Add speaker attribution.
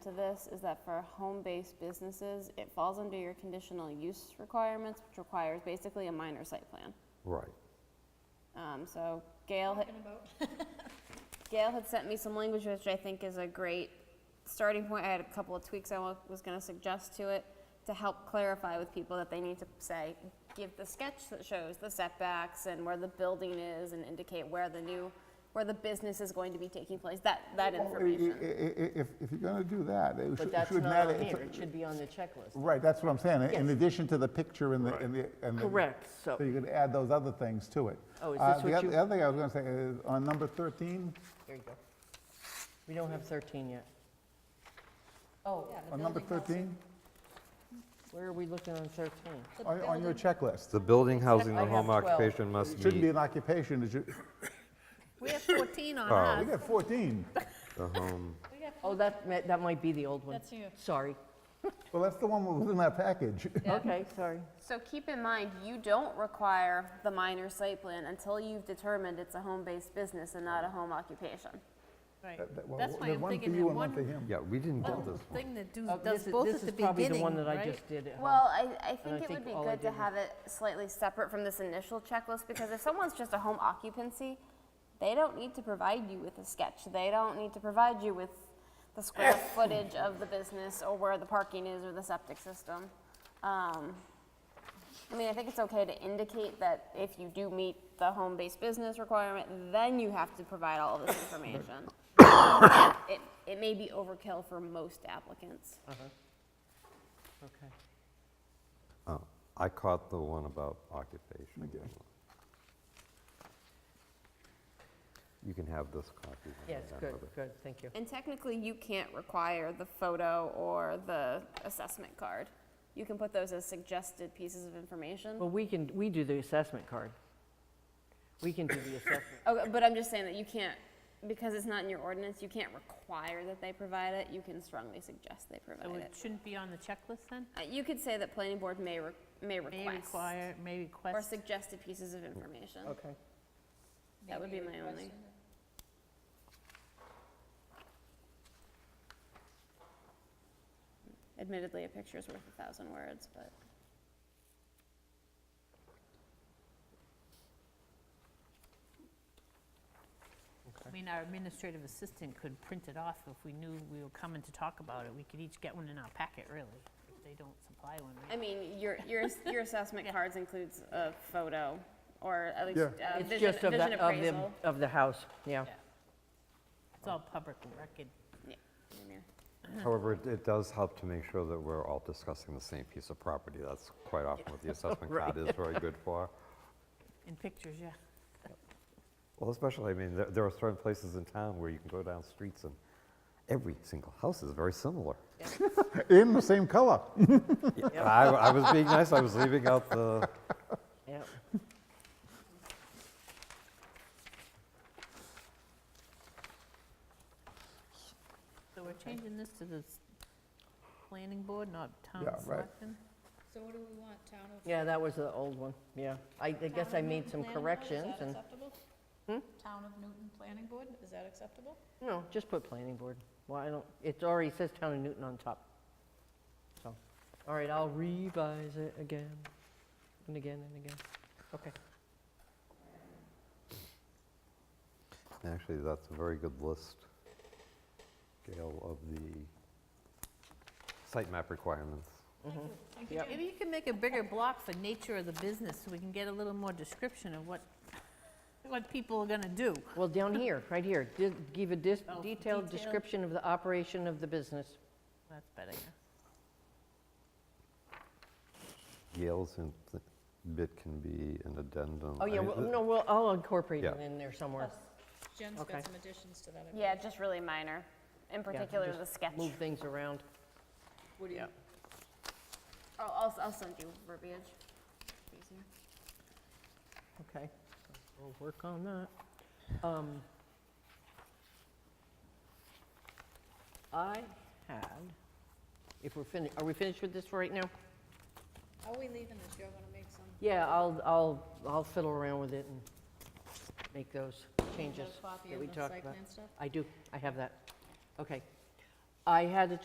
Speaker 1: to this is that for home-based businesses, it falls under your conditional use requirements, which requires basically a minor site plan.
Speaker 2: Right.
Speaker 1: Um, so Gail had, Gail had sent me some language, which I think is a great starting point. I had a couple of tweaks I wa- was gonna suggest to it to help clarify with people that they need to say, give the sketch that shows the setbacks and where the building is and indicate where the new, where the business is going to be taking place, that, that
Speaker 2: Well, i- i-
Speaker 1: information.
Speaker 2: i- i- If, if you're gonna do that, it should-
Speaker 3: But
Speaker 2: it
Speaker 3: that's
Speaker 2: should
Speaker 3: not
Speaker 2: matter.
Speaker 3: on here,
Speaker 2: it's-
Speaker 3: it should be on the checklist.
Speaker 2: Right, that's what I'm saying, in
Speaker 3: Yes.
Speaker 2: addition to the picture and the, and the. and the-
Speaker 3: Correct, so-
Speaker 2: So you could add those other things to it.
Speaker 3: Oh, is
Speaker 2: Uh,
Speaker 3: this
Speaker 2: the
Speaker 3: what
Speaker 2: oth-
Speaker 3: you-
Speaker 2: The other thing I was gonna say is, on number 13,
Speaker 3: There you go. We don't have 13 yet. Oh,
Speaker 2: on number 13,
Speaker 3: where are we looking on 13?
Speaker 2: on on your checklist,
Speaker 4: The building, housing,
Speaker 3: I
Speaker 4: the home
Speaker 3: have 12.
Speaker 4: occupation must
Speaker 2: shouldn't be
Speaker 4: meet
Speaker 2: an occupation, it should,
Speaker 5: We have 14 on
Speaker 2: Oh, we
Speaker 5: us.
Speaker 2: got 14.
Speaker 4: the home.
Speaker 3: Oh, that, ma- that might be the old one.
Speaker 5: That's you.
Speaker 3: Sorry.
Speaker 2: Well, that's the one that was in that package.
Speaker 3: Okay, sorry.
Speaker 1: So keep in mind, you don't require the minor site plan until you've determined it's a home-based business and not a home occupation.
Speaker 5: Right.
Speaker 2: That- that- well,
Speaker 5: That's why
Speaker 2: there's
Speaker 5: I'm
Speaker 2: one for
Speaker 5: thinking
Speaker 2: you
Speaker 5: that
Speaker 2: and one for
Speaker 5: one
Speaker 2: him.
Speaker 4: Yeah, we didn't get this one.
Speaker 5: thing that do-
Speaker 3: Oh,
Speaker 5: does
Speaker 3: this is-
Speaker 5: both at the
Speaker 3: This is probably the one
Speaker 5: beginning,
Speaker 3: that I
Speaker 5: right?
Speaker 3: just did at home.
Speaker 1: Well, I, I
Speaker 3: I
Speaker 1: think it would
Speaker 3: think
Speaker 1: be
Speaker 3: all I
Speaker 1: good to
Speaker 3: did was-
Speaker 1: have it slightly separate from this initial checklist, because if someone's just a home occupancy, they don't need to provide you with a sketch, they don't need to provide you with the square footage of the business, or where the parking is, or the septic system. Um, I mean, I think it's okay to indicate that if you do meet the home-based business requirement, then you have to provide all of this information. It, it may be overkill for most applicants.
Speaker 3: Okay.
Speaker 4: Oh, I caught the one about occupation. You can have this copy. when we're
Speaker 3: Yes,
Speaker 4: done
Speaker 3: good,
Speaker 4: with it.
Speaker 3: good, thank you.
Speaker 1: And technically, you can't require the photo or the assessment card. You can put those as suggested pieces of information.
Speaker 3: Well, we can, we do the assessment card. We can do the assessment.
Speaker 1: Okay, Oh, but I'm just saying that you can't, because it's not in your ordinance, you can't require that they provide it. You can strongly suggest they
Speaker 5: So
Speaker 1: provide
Speaker 5: it
Speaker 1: it.
Speaker 5: shouldn't be on the checklist then?
Speaker 1: Uh, You could say that planning board may, re- may
Speaker 5: May
Speaker 1: request
Speaker 5: require, may
Speaker 1: or
Speaker 5: request.
Speaker 1: suggested pieces of information.
Speaker 3: Okay.
Speaker 1: That would be my only. Admittedly, a picture's worth a thousand words, but.
Speaker 5: I mean, our administrative assistant could print it off if we knew we were coming to talk about it. We could each get one in our packet, really, if they don't supply one, right?
Speaker 1: I mean, your, your, your assessment cards includes a photo, or at least
Speaker 2: Yeah.
Speaker 1: uh
Speaker 3: It's
Speaker 1: vision,
Speaker 3: just of
Speaker 1: vision
Speaker 3: the, of the,
Speaker 1: appraisal.
Speaker 3: of the house, yeah.
Speaker 5: Yeah. It's all public record.
Speaker 1: Yeah, in there.
Speaker 3: Uh-huh.
Speaker 4: However, it- it does help to make sure that we're all discussing the same piece of property. That's quite often what the assessment card is very good for.
Speaker 5: In pictures, yeah.
Speaker 4: Well, especially, I mean, there, there are certain places in town where you can go down streets and every single house is very similar.
Speaker 2: In the same color.
Speaker 4: Yeah, I, I was being nice, I was leaving out the,
Speaker 3: Yeah.
Speaker 5: So we're changing this to the s- planning board, not town
Speaker 2: Yeah, right.
Speaker 5: selectmen?
Speaker 6: So what do we want, town of?
Speaker 3: Yeah, that was the old one, yeah. I I guess
Speaker 6: Town
Speaker 3: I
Speaker 6: of
Speaker 3: made
Speaker 6: Newton Planning
Speaker 3: some
Speaker 6: Board, is
Speaker 3: corrections
Speaker 6: that
Speaker 3: and, Hmm?
Speaker 6: acceptable? Town of Newton Planning Board, is that acceptable?
Speaker 3: no, just put planning board. Well, I don't, it already says Town of Newton on top. So, all right, I'll revise it again and again and again. Okay.
Speaker 4: actually, that's a very good list, Gail, of the site map requirements.
Speaker 3: Yep.
Speaker 5: Maybe you can make a bigger block for nature of the business, so we can get a little more description of what, what people are gonna do.
Speaker 3: Well, down here, right here, di- give a dis-
Speaker 5: Oh,
Speaker 3: detailed
Speaker 5: detailed.
Speaker 3: description of the operation of the business.
Speaker 5: That's better, yeah.
Speaker 4: Gail's in- bit can be an addendum.
Speaker 3: Oh,
Speaker 4: I
Speaker 3: yeah,
Speaker 4: mean,
Speaker 3: well,
Speaker 4: the-
Speaker 3: no, well, I'll incorporate it
Speaker 4: Yeah.
Speaker 3: in there somewhere.
Speaker 6: Jen's
Speaker 3: Okay.
Speaker 6: got some additions to that. I
Speaker 1: Yeah, just really minor, in
Speaker 3: Yeah,
Speaker 1: particular
Speaker 3: just
Speaker 1: the sketch.
Speaker 3: Move things around.
Speaker 6: believe.
Speaker 1: I'll, I'll, I'll send you verbiage. Easier.
Speaker 3: Okay, we'll work on that. Um, I had, if we're finished, are we finished with this for right now?
Speaker 6: How are we leaving this? You're gonna make some,
Speaker 3: Yeah, I'll, I'll, I'll fiddle around with it and make those
Speaker 6: you
Speaker 3: changes
Speaker 6: got a copy
Speaker 3: that
Speaker 6: of
Speaker 3: we
Speaker 6: the
Speaker 3: talked
Speaker 6: site
Speaker 3: about.
Speaker 6: plan stuff?
Speaker 3: I do, I have that. Okay. I had a